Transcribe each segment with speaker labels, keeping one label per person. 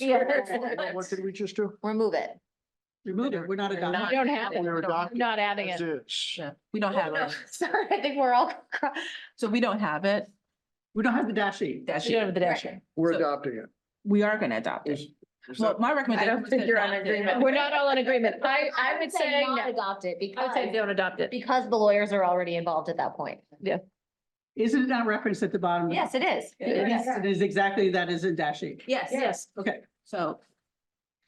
Speaker 1: Yeah.
Speaker 2: What what did we just do?
Speaker 1: Remove it.
Speaker 3: Remove it, we're not
Speaker 2: We're not-
Speaker 3: adopting.
Speaker 4: We don't have it.
Speaker 2: We're adopting
Speaker 4: Not adding
Speaker 2: as
Speaker 4: it.
Speaker 2: is.
Speaker 3: Yeah, We don't have it.
Speaker 1: Sorry, I think we're all. cr-
Speaker 3: So we don't have it. We don't have the dash sheet. Dash
Speaker 4: You E. don't have
Speaker 3: sheet.
Speaker 4: the dash sheet.
Speaker 2: We're
Speaker 3: So-
Speaker 2: adopting it.
Speaker 3: We are gonna adopt it.
Speaker 2: Is- is
Speaker 3: Well,
Speaker 2: that-
Speaker 3: my recommendation. was to
Speaker 1: think you're on
Speaker 3: adopt it.
Speaker 1: agreement.
Speaker 4: We're not all in agreement. I, I would say,
Speaker 1: not
Speaker 4: no.
Speaker 1: Adopt it
Speaker 4: I would say
Speaker 1: because,
Speaker 4: don't adopt it.
Speaker 1: because the lawyers are already involved at that point.
Speaker 5: Isn't it not referenced at the bottom?
Speaker 1: Yes, it is.
Speaker 3: It is.
Speaker 5: It is exactly that is in dash eight.
Speaker 3: Yes, yes.
Speaker 4: Yes.
Speaker 5: Okay,
Speaker 3: So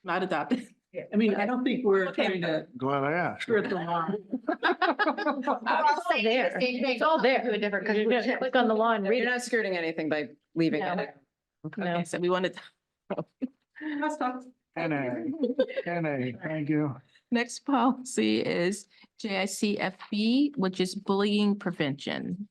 Speaker 3: not adopted.
Speaker 5: I mean, I don't think we're
Speaker 3: Okay.
Speaker 5: trying to
Speaker 2: Glad I asked.
Speaker 5: skirt the law.
Speaker 1: We're all saying the
Speaker 4: there.
Speaker 1: same thing.
Speaker 4: It's all there. Do a different, because you're gonna click on the law and read
Speaker 6: You're
Speaker 4: it.
Speaker 6: not skirting anything by leaving
Speaker 4: No.
Speaker 6: it.
Speaker 4: No.
Speaker 3: Okay, so we wanted,
Speaker 5: That's not-
Speaker 2: NA, NA, thank you.
Speaker 3: next policy is J I C F B, which is bullying prevention.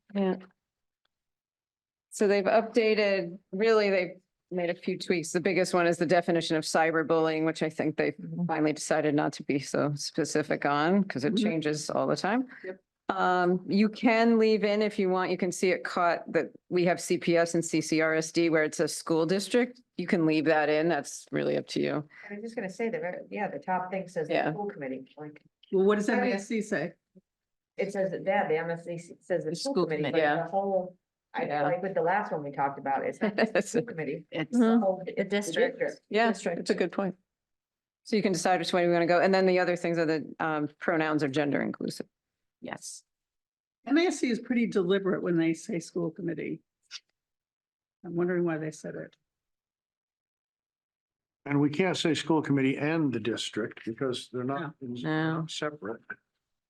Speaker 6: So they've updated, really, they've made a few tweaks. The biggest one is the definition of cyberbullying, which I think they finally decided not to be so specific on because it
Speaker 5: Mhm.
Speaker 6: changes all the time. Um, you can leave in if you want, you can see it caught that we have CPS and CCRSD where it's a school district. You can leave that in. That's really up to you.
Speaker 7: I was just gonna say that, very- yeah, the top thing says the
Speaker 6: Yeah.
Speaker 7: school committee, like,
Speaker 5: Well, what does MASC say?
Speaker 7: it says that, yeah, the MSC says the school
Speaker 3: school
Speaker 7: committee,
Speaker 3: committee,
Speaker 7: but the
Speaker 6: yeah.
Speaker 7: whole. I
Speaker 6: Yeah.
Speaker 7: like with the last one we talked about, it's not just the school committee.
Speaker 3: It's,
Speaker 7: it's the
Speaker 4: Mm-hmm.
Speaker 6: Mhm.
Speaker 7: whole-
Speaker 1: The
Speaker 7: the
Speaker 1: district.
Speaker 6: Yeah, it's a good point. So you can decide which way you want to go. And then the other things are the um, pronouns are gender inclusive.
Speaker 3: yes.
Speaker 5: MASC is pretty deliberate when they say school committee. I'm wondering why they said it.
Speaker 2: And we can't say school committee and the district because they're not
Speaker 6: No.
Speaker 2: separate.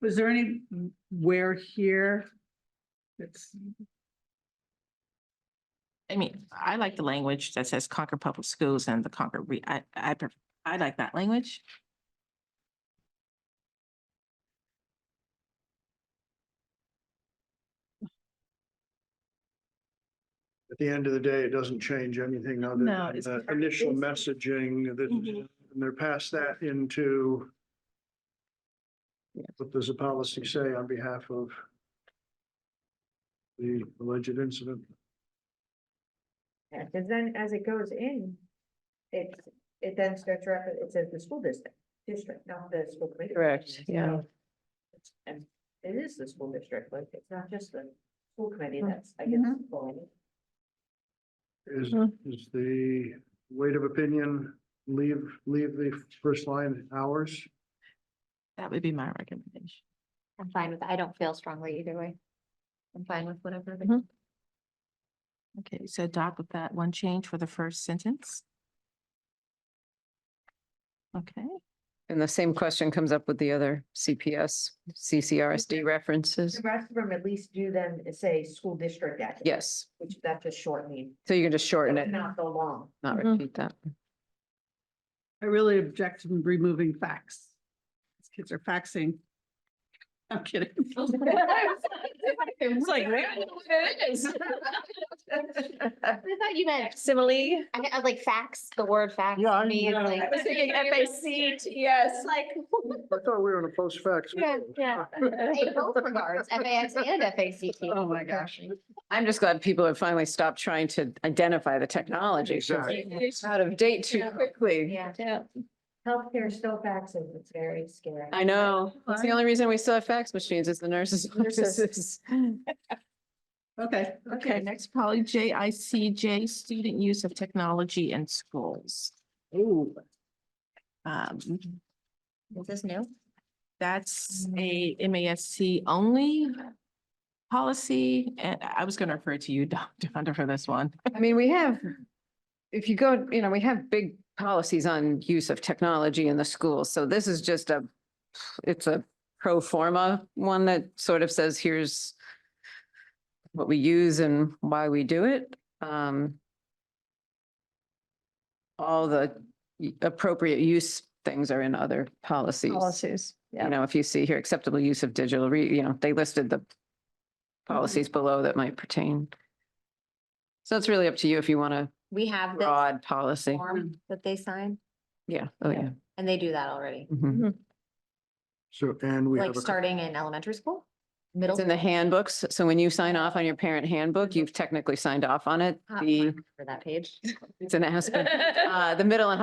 Speaker 5: Was there any where here? It's,
Speaker 3: I mean, I like the language that says Concord Public Schools and the Concord, Re- I, I, pref- I like that language.
Speaker 2: At the end of the day, it doesn't change anything other
Speaker 3: No,
Speaker 2: than
Speaker 3: it's
Speaker 2: the
Speaker 3: part-
Speaker 2: initial
Speaker 3: it's-
Speaker 2: messaging that, and they're past that into what does the policy say on behalf of the alleged incident?
Speaker 7: Yeah, cause then as it goes in, it, it then starts, rep- it says the school district, district, not the school committee.
Speaker 6: Correct, yeah.
Speaker 7: So, it's- And it is the school district, like, it's not just the school committee that's, I guess,
Speaker 5: Mhm.
Speaker 7: bullying.
Speaker 2: Is,
Speaker 1: Hmm.
Speaker 2: is the weight of opinion, leave, leave the first line hours?
Speaker 3: That would be my recommendation.
Speaker 1: I'm fine with, I don't feel strongly either way. I'm fine with whatever. they-
Speaker 6: Mhm.
Speaker 3: Okay, so adopt with that one change for the first sentence. Okay,
Speaker 6: And the same question comes up with the other CPS, CCRSD references.
Speaker 7: The rest of them at least do then say school district. at the end,
Speaker 6: Yes,
Speaker 7: Which that's a short name,
Speaker 6: so you can just shorten it,
Speaker 7: not so long.
Speaker 6: not
Speaker 3: Mhm.
Speaker 6: repeat that.
Speaker 5: I really object to removing facts. These Kids are faxing. I'm kidding.
Speaker 4: Mm-hmm. It's like, where?
Speaker 1: I thought you meant,
Speaker 4: Simile.
Speaker 1: I meant like facts, the word facts.
Speaker 2: Yeah, I-
Speaker 1: to me is
Speaker 2: yeah.
Speaker 1: like-
Speaker 4: I was thinking F A C T S.
Speaker 1: It's like,
Speaker 2: I thought we were in a post fax.
Speaker 1: yeah, yeah. In both regards, F A X and F A C T.
Speaker 5: Oh, my gosh.
Speaker 6: I'm just glad people have finally stopped trying to identify the technology. 'cause
Speaker 2: Exactly.
Speaker 6: It's out of date too
Speaker 4: Yeah.
Speaker 6: quickly.
Speaker 1: Yeah.
Speaker 4: Yeah.
Speaker 7: Healthcare still faxes, it's very scary.
Speaker 6: I know. That's the only reason we still have fax machines is the nurses' offices.
Speaker 5: Okay.
Speaker 3: okay, next policy, J I C J, student use of technology in schools.
Speaker 5: Ooh.
Speaker 3: Um,
Speaker 1: Is this new?
Speaker 3: That's a MASC only policy, and I was gonna refer to you, Dr. Hunter, for this one.
Speaker 6: I mean, we have, if you go, you know, we have big policies on use of technology in the schools. So this is just a, it's a pro forma one that sort of says, here's what we use and why we do it. Um, all the y- appropriate use things are in other policies.
Speaker 4: Policies. Yeah.
Speaker 6: You know, if you see here acceptable use of digital, re- you know, they listed the policies below that might pertain. So it's really up to you if you want a
Speaker 1: We have this
Speaker 6: broad policy.
Speaker 1: form that they sign
Speaker 6: Yeah, oh, yeah.
Speaker 1: and they do that already,
Speaker 6: Mhm.
Speaker 2: So, and we have
Speaker 1: like
Speaker 2: a
Speaker 1: starting in elementary school, middle.
Speaker 6: It's in the handbooks. So when you sign off on your parent handbook,
Speaker 1: Uh,
Speaker 2: E.
Speaker 6: you've technically signed off on it.
Speaker 1: school.
Speaker 6: The,
Speaker 1: For that page.
Speaker 6: it's an Aspen. Uh, the middle and